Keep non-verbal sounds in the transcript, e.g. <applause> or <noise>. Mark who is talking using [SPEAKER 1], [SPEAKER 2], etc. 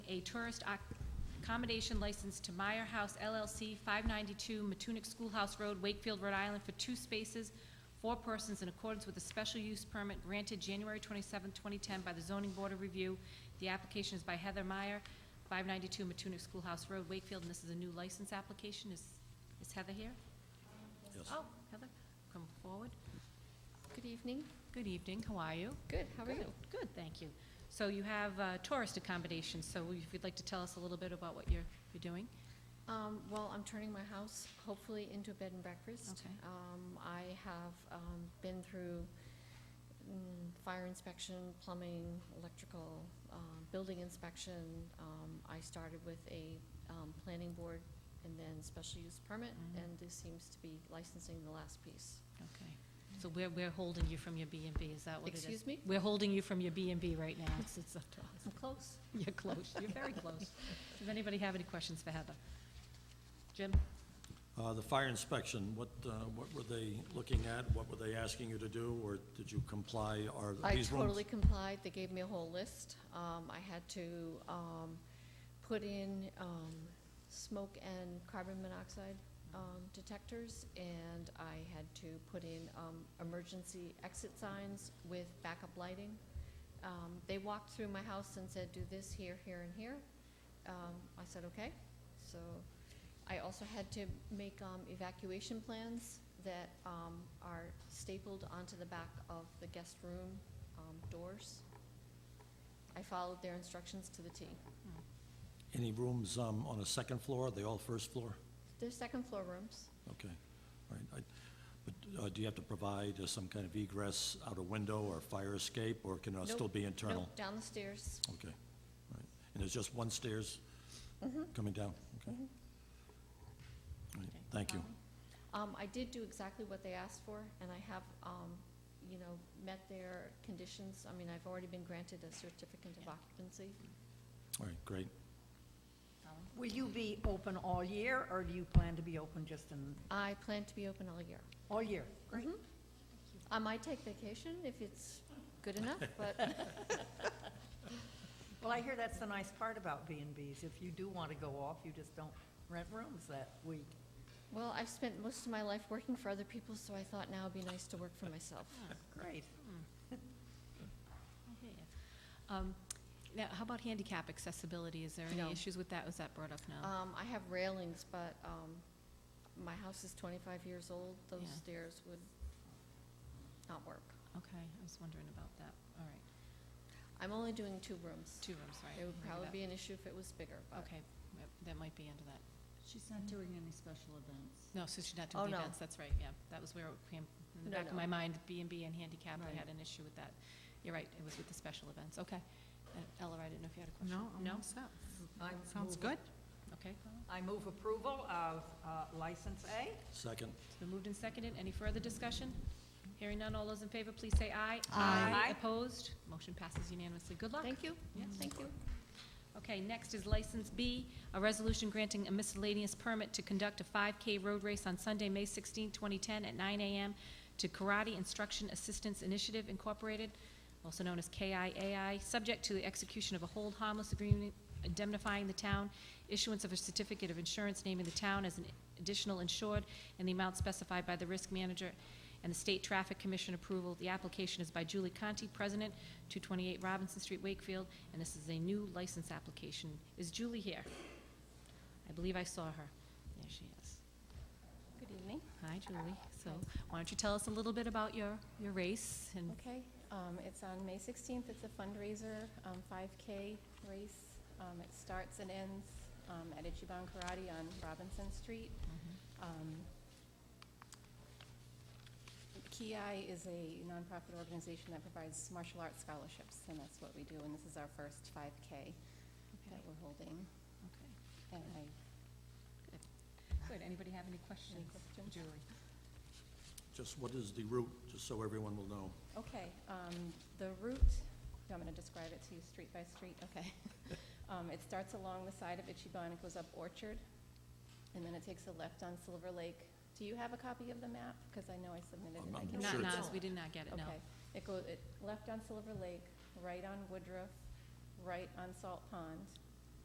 [SPEAKER 1] a tourist ac- accommodation license to Meyer House LLC, 592 Matunic Schoolhouse Road, Wakefield, Rhode Island, for two spaces, four persons in accordance with a special use permit granted January 27, 2010 by the Zoning Board of Review. The application is by Heather Meyer, 592 Matunic Schoolhouse Road, Wakefield, and this is a new license application. Is is Heather here?
[SPEAKER 2] Yes.
[SPEAKER 1] Oh, Heather, come forward.
[SPEAKER 3] Good evening.
[SPEAKER 1] Good evening, how are you?
[SPEAKER 3] Good, how are you?
[SPEAKER 1] Good, Good, thank you. So you have uh, tourist accommodations, so if you'd like to tell us a little bit about what you're, you're doing?
[SPEAKER 3] Um, well, I'm turning my house hopefully into a bed and breakfast.
[SPEAKER 1] Okay.
[SPEAKER 3] Um, I have, um, been through, mm, fire inspection, plumbing, electrical, um, building inspection. Um, I started with a, um, planning board and then special use permit,
[SPEAKER 1] Mhm.
[SPEAKER 3] and this seems to be licensing the last piece.
[SPEAKER 1] Okay. So we're, we're holding you from your B and B, is that what it is?
[SPEAKER 3] Excuse me?
[SPEAKER 1] We're holding you from your B and B right
[SPEAKER 3] <laughs>
[SPEAKER 1] now. It's, it's <laughs> up to us.
[SPEAKER 3] I'm close.
[SPEAKER 1] You're close, you're very close. Does anybody have any questions for Heather? Jim?
[SPEAKER 2] Uh, The fire inspection, what, uh, what were they looking at? What were they asking you to do, or did you comply? Are
[SPEAKER 3] I
[SPEAKER 2] these rooms?
[SPEAKER 3] totally complied, they gave me a whole list. Um, I had to, um, put in, um, smoke and carbon monoxide, um, detectors, and I had to put in, um, emergency exit signs with backup lighting. Um, they walked through my house and said, do this here, here, and here. Um, I said, okay, so I also had to make um, evacuation plans that um, are stapled onto the back of the guest room um, doors. I followed their instructions to the T.
[SPEAKER 2] Any rooms um, on a second floor? Are they all first floor?
[SPEAKER 3] They're second floor rooms.
[SPEAKER 2] Okay, all right. I- But uh, do you have to provide uh, some kind of egress out a window or fire escape, or can it
[SPEAKER 3] Nope,
[SPEAKER 2] still be internal?
[SPEAKER 3] Nope, down the stairs.
[SPEAKER 2] Okay, all right. And there's just one stairs
[SPEAKER 3] Mm-hmm.
[SPEAKER 2] coming down? Okay. All right,
[SPEAKER 1] Okay.
[SPEAKER 2] Thank you.
[SPEAKER 3] Um, I did do exactly what they asked for, and I have, um, you know, met their conditions. I mean, I've already been granted a certificate of occupancy.
[SPEAKER 2] All right, great.
[SPEAKER 4] Will you be open all year, or do you plan to be open just in,
[SPEAKER 3] I plan to be open all year.
[SPEAKER 4] all year? Great.
[SPEAKER 5] Mm-hmm.
[SPEAKER 3] Mhm. I might take vacation if it's good enough, but
[SPEAKER 4] Well, I hear that's the nice part about B and Bs. If you do want to go off, you just don't rent rooms that week.
[SPEAKER 3] Well, I've spent most of my life working for other people, so I thought now it'd be nice to work for myself.
[SPEAKER 4] Great.
[SPEAKER 1] I hear ya. Um, Now, how about handicap accessibility? Is there
[SPEAKER 3] No.
[SPEAKER 1] any issues with that? Was that brought up now?
[SPEAKER 3] Um, I have railings, but, um, my house is twenty-five years old, those
[SPEAKER 1] Yeah.
[SPEAKER 3] stairs would not work.
[SPEAKER 1] Okay, I was wondering about that. All right,
[SPEAKER 3] I'm only doing two rooms.
[SPEAKER 1] two rooms, right.
[SPEAKER 3] It would
[SPEAKER 1] maybe
[SPEAKER 3] probably
[SPEAKER 1] that-
[SPEAKER 3] be an issue if it was bigger, but,
[SPEAKER 1] Okay, yep, that might be under that.
[SPEAKER 6] She's not doing any special events.
[SPEAKER 1] No, so she's not
[SPEAKER 3] Oh,
[SPEAKER 1] doing the
[SPEAKER 3] no.
[SPEAKER 1] events, that's right, yeah. That was where it came, in the
[SPEAKER 3] No,
[SPEAKER 1] back of
[SPEAKER 3] no.
[SPEAKER 1] my mind, B and B and handicap, I
[SPEAKER 6] Right.
[SPEAKER 1] had an issue with that. You're right, it was with the special events, okay. Uh, Ella, I didn't know if you had a question?
[SPEAKER 5] No, I'm
[SPEAKER 1] No?
[SPEAKER 5] all set.
[SPEAKER 4] I
[SPEAKER 5] Sounds
[SPEAKER 4] move-
[SPEAKER 5] good.
[SPEAKER 1] Okay.
[SPEAKER 4] Mm-hmm. I move approval of uh, license A.
[SPEAKER 2] Second,
[SPEAKER 1] It's been moved and seconded, any further discussion? Hearing none, all those in favor, please say aye.
[SPEAKER 4] Aye. Aye.
[SPEAKER 1] Opposed? Motion passes unanimously, good luck.
[SPEAKER 3] thank you,
[SPEAKER 1] Yes.
[SPEAKER 3] thank you.
[SPEAKER 1] Okay, next is License B, a resolution granting a miscellaneous permit to conduct a 5K road race on Sunday, May 16, 2010, at 9 a.m. to Karate Instruction Assistance Initiative Incorporated, also known as KIAI, subject to the execution of a hold harmless agreement indemnifying the town, issuance of a certificate of insurance naming the town as an additional insured, and the amount specified by the risk manager and the State Traffic Commission approval. The application is by Julie Conti, President, 228 Robinson Street, Wakefield, and this is a new license application. Is Julie here? I believe I saw her. There she is.
[SPEAKER 7] Good evening.
[SPEAKER 1] Hi, Julie. So, why don't you tell us a little bit about your, your race and,
[SPEAKER 7] Okay, um, it's on May 16th. It's a fundraiser, um, 5K race. Um, It starts and ends um, at Ichiban Karate on Robinson Street. Um, KIAI is a nonprofit organization that provides martial arts scholarships, and that's what we do, and this is our first 5K that
[SPEAKER 1] okay,
[SPEAKER 7] we're holding.
[SPEAKER 1] okay.
[SPEAKER 7] And I,
[SPEAKER 1] Good. Anybody have any questions?
[SPEAKER 7] questions?
[SPEAKER 1] Julie?
[SPEAKER 2] just what is the route, just so everyone will know?
[SPEAKER 7] Okay, um, the route, I'm gonna describe it to you street by street,
[SPEAKER 2] <laughs>
[SPEAKER 7] okay. Um, it starts along the side of Ichiban, it goes up Orchard, and then it takes a left on Silver Lake. Do you have a copy of the map? Because I know I submitted it. I
[SPEAKER 2] I'm- I'm
[SPEAKER 7] can-
[SPEAKER 1] Not,
[SPEAKER 2] sure
[SPEAKER 1] not,
[SPEAKER 2] it's-
[SPEAKER 1] we did not get it, no.
[SPEAKER 7] Okay, it goes, it, left on Silver Lake, right on Woodruff, right on Salt Pond,